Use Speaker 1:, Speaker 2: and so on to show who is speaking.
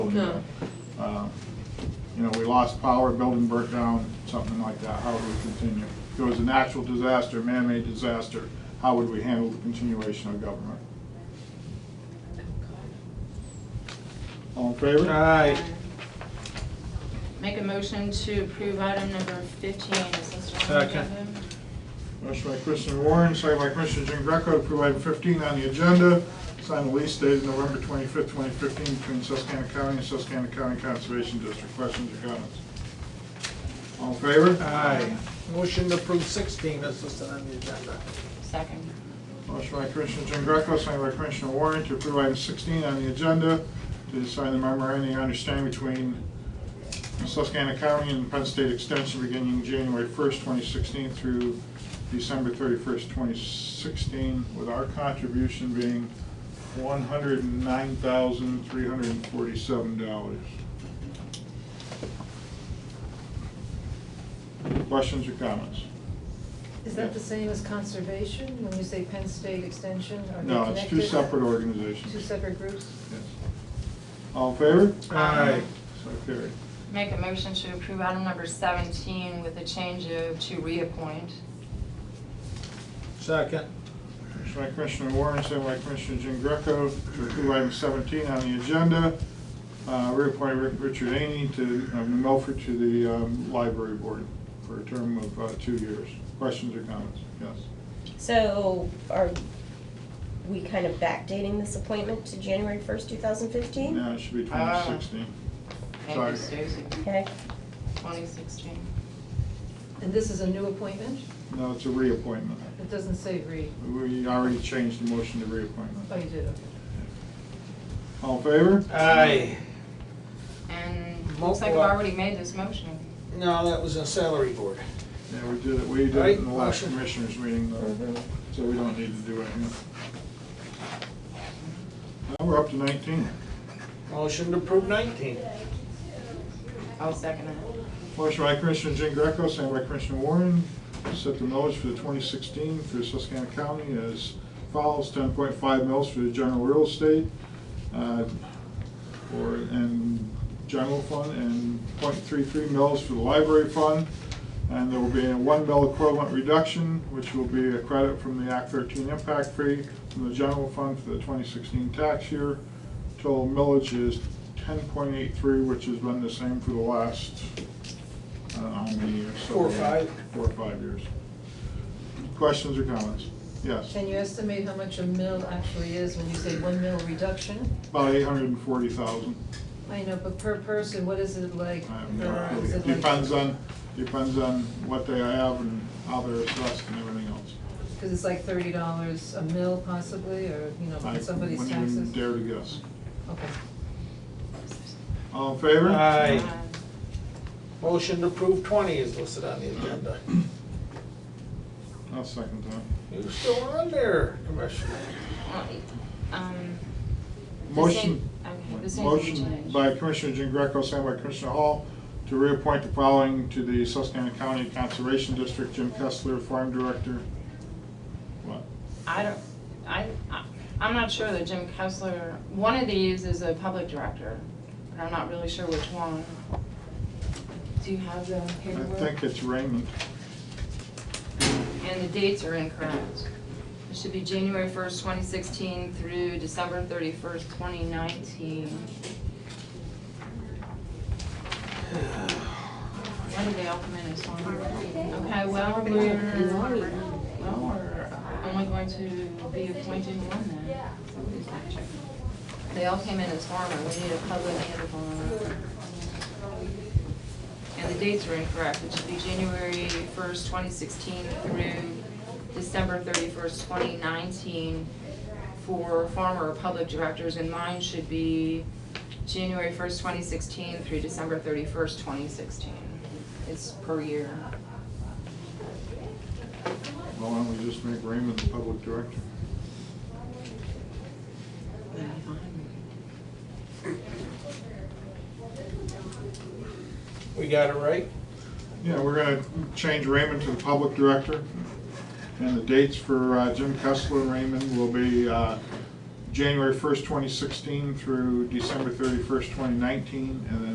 Speaker 1: No.
Speaker 2: Uh, You know, we lost power, building burnt down, something like that, how would we continue? If it was a natural disaster, man-made disaster, how would we handle the continuation of government? All in favor?
Speaker 3: Aye.
Speaker 1: Make a motion to approve item number fifteen is listed on the
Speaker 3: Second.
Speaker 1: agenda.
Speaker 2: Motion by Commissioner Warren, second by Commissioner Jean Greco to approve item 15 on the agenda, sign the lease dated November 25th, 2015 between Susquehanna County and Susquehanna County Conservation District. Questions or comments? All in favor?
Speaker 3: Aye. Motion to approve sixteen is listed on the agenda.
Speaker 1: Second.
Speaker 2: Motion by Commissioner Jean Greco, second by Commissioner Warren to approve item 16 on the agenda to sign the memorandum of understanding between Susquehanna County and Penn State Extension beginning January 1st, 2016 through December 31st, 2016, with our contribution being $109,347. Questions or comments?
Speaker 4: Is that the same as conservation, when you say Penn State Extension, are they
Speaker 2: No, it's two
Speaker 4: connected?
Speaker 2: separate organizations.
Speaker 4: Two separate groups?
Speaker 2: Yes. All in favor?
Speaker 3: Aye.
Speaker 2: So carried.
Speaker 1: Make a motion to approve item number seventeen with a change of to reappoint.
Speaker 3: Second.
Speaker 2: Motion by Commissioner Warren, second by Commissioner Jean Greco to approve item 17 on the agenda, uh, reappoint Rick- Richard Aney to, of New Milford to the um, Library Board for a term of uh, two years. Questions or comments? Yes.
Speaker 5: So are we kind of backdating this appointment to January 1st, 2015?
Speaker 2: Now it should be
Speaker 1: Ah.
Speaker 2: 2016.
Speaker 1: Thank you,
Speaker 2: Sorry.
Speaker 1: Stacy.
Speaker 5: Okay,
Speaker 1: Twenty sixteen.
Speaker 4: And this is a new appointment?
Speaker 2: No, it's a reappointment.
Speaker 4: It doesn't say re,
Speaker 2: We already changed the motion to
Speaker 4: oh, you
Speaker 2: reappointment.
Speaker 4: did, okay.
Speaker 2: All in favor?
Speaker 3: Aye.
Speaker 1: And looks like I've already made this motion.
Speaker 3: No, that was a salary board.
Speaker 2: Yeah, we did it, we did it in the last commissioners meeting, though, so we don't need to do it here. Now we're up to nineteen.
Speaker 3: Motion to approve nineteen.
Speaker 1: I'll second it.
Speaker 2: Motion by Commissioner Jean Greco, second by Commissioner Warren, to set the millage for the twenty sixteen for Susquehanna County as follows, ten point five mils for the general real estate, uh, or, and general fund, and 0.33 mils for the library fund. And there will be a one mil equivalent reduction, which will be a credit from the Act thirteen impact fee from the general fund for the twenty sixteen tax year. Total millage is ten point eight three, which has been the same for the last, I don't know how many years.
Speaker 3: Four or five.
Speaker 2: Four or five years. Questions or comments? Yes.
Speaker 4: Can you estimate how much a mill actually is when you say one mill reduction?
Speaker 2: About eight hundred and forty thousand.
Speaker 4: I know, but per person, what is it like?
Speaker 2: I have no
Speaker 4: uh,
Speaker 2: idea.
Speaker 4: is it like-
Speaker 2: Depends on, depends on what they have and how they're assessed and everything else.
Speaker 4: Because it's like thirty dollars a mill possibly, or, you know,
Speaker 2: I
Speaker 4: somebody's
Speaker 2: wouldn't even
Speaker 4: taxes?
Speaker 2: Dare to guess.
Speaker 4: Okay.
Speaker 2: All in favor?
Speaker 3: Aye.
Speaker 1: Uh,
Speaker 3: Motion to approve twenty is listed on the agenda.
Speaker 2: I'll second that.
Speaker 3: You still on there, Commissioner?
Speaker 1: Uh, Um, This
Speaker 2: Motion,
Speaker 1: ain't- okay, this ain't gonna
Speaker 2: motion
Speaker 1: change.
Speaker 2: by Commissioner Jean Greco, signed by Commissioner Hall, to reappoint the following to the Susquehanna County Conservation District, Jim Kessler, Farm Director. What?
Speaker 1: I don't, I, I- I'm not sure that Jim Kessler, one of these is a public director, but I'm not really sure which one. Do you have the
Speaker 2: I
Speaker 1: paperwork?
Speaker 2: think it's Raymond.
Speaker 1: And the dates are incorrect. It should be January 1st, 2016 through December 31st, 2019. Why did they all come in as one? Okay, well, we're, well, we're uh, only going to be appointing one then. Somebody's gonna check. They all came in as farmer, we need a public and a farmer. And the dates are incorrect, it should be January first, twenty sixteen through December thirty-first, twenty nineteen for farmer or public directors, and mine should be January first, twenty sixteen through December thirty-first, twenty sixteen. It's per year.
Speaker 2: Well, Why don't we just make Raymond the Public Director?
Speaker 3: We got it right?
Speaker 2: Yeah, we're gonna change Raymond to the Public Director. And the dates for uh, Jim Kessler and Raymond will be uh, January 1st, 2016 through December 31st, 2019, and then